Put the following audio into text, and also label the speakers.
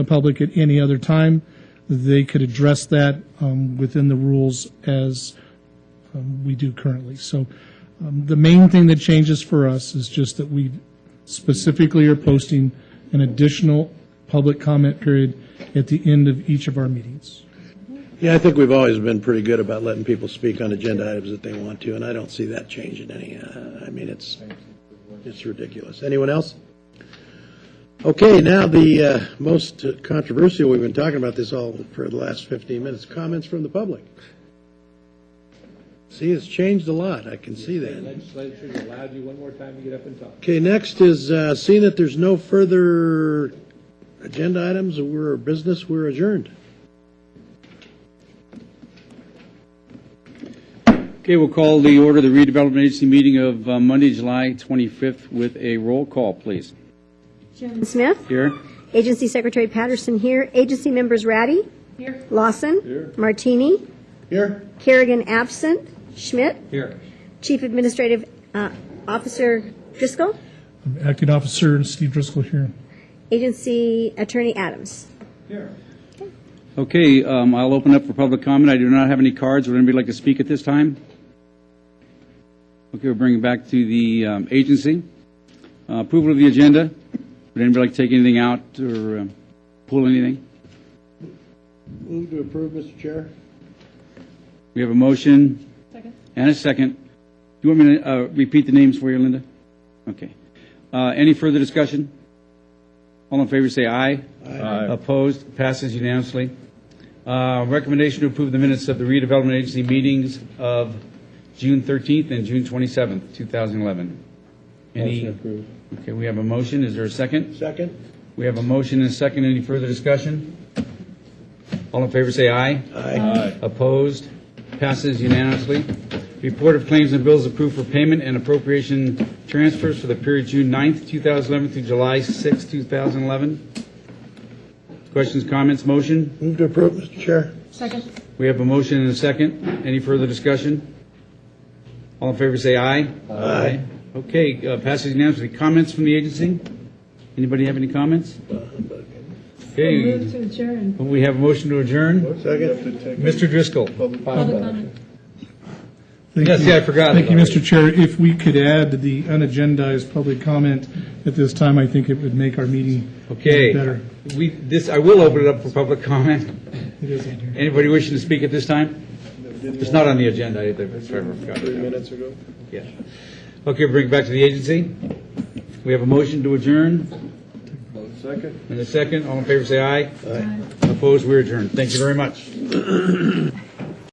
Speaker 1: the public at any other time. They could address that um, within the rules as um, we do currently. So um, the main thing that changes for us is just that we specifically are posting an additional public comment period at the end of each of our meetings.
Speaker 2: Yeah, I think we've always been pretty good about letting people speak on agenda items that they want to, and I don't see that changing any. uh, I mean, it's, it's ridiculous. Anyone else? Okay, now the uh, most controversial, we've been talking about this all for the last 15 minutes, comments from the public. See, it's changed a lot, I can see that.
Speaker 3: Legislature allowed you one more time to get up and talk.
Speaker 2: Okay, next is, uh, seeing that there's no further agenda items or business, we're adjourned.
Speaker 4: Okay, we'll call the order the redevelopment agency meeting of uh, Monday, July 25th with a roll call, please.
Speaker 5: Jones Smith.
Speaker 4: Here,
Speaker 5: Agency Secretary Patterson here. Agency members Ratty. Here. Lawson. Here. Martini.
Speaker 2: Here?
Speaker 5: Kerrigan absent. Schmidt.
Speaker 3: Here.
Speaker 5: Chief Administrative uh, Officer Driscoll.
Speaker 1: Acting Officer Steve Driscoll here.
Speaker 5: Agency Attorney Adams.
Speaker 3: Here.
Speaker 4: okay, um, I'll open up for public comment. I do not have any cards. Would anybody like to speak at this time? Okay, we'll bring it back to the um, agency. Uh, Approval of the agenda. Would anybody like to take anything out or um, pull anything?
Speaker 2: Move to approve, Mr. Chair.
Speaker 4: We have a motion. And a second. Do you want me to uh, repeat the names for you, Linda? Okay. Uh, Any further discussion? All in favor, say aye. Aye. Opposed? Passes unanimously. Uh, Recommendation to approve the minutes of the redevelopment agency meetings of June 13th and June 27th, 2011. Any? Okay, we have a motion. Is there a second?
Speaker 2: Second?
Speaker 4: We have a motion and a second. Any further discussion? All in favor, say aye.
Speaker 2: Aye.
Speaker 4: Opposed? Passes unanimously. Report of claims and bills approved for payment and appropriation transfers for the period June 9th, 2011 through July 6th, 2011. Questions, comments, motion?
Speaker 2: Move to approve, Mr. Chair.
Speaker 4: We have a motion and a second. Any further discussion? All in favor, say aye. Aye. Okay, uh, passes unanimously. Comments from the agency? Anybody have any comments?
Speaker 6: Move
Speaker 4: Okay,
Speaker 6: to adjourn.
Speaker 4: we have a motion to adjourn.
Speaker 2: Second.
Speaker 4: Mr. Driscoll.
Speaker 6: Public comment.
Speaker 1: Thank
Speaker 4: Yes,
Speaker 1: you.
Speaker 4: yeah, I forgot
Speaker 1: Thank you,
Speaker 4: about
Speaker 1: Mr. Chair. If we could add the unagendized public comment at this time, I think it would make our meeting
Speaker 4: Okay,
Speaker 1: better.
Speaker 4: we, this, I will open it up for public comment.
Speaker 1: It is on here.
Speaker 4: Anybody wishing to speak at this time? It's not on the agenda either, but Trevor forgot. Three minutes ago? Yeah. Okay, bring it back to the agency. We have a motion to adjourn. Second. And a second, all in favor, say aye. Aye. Opposed, we adjourn. Thank you very much.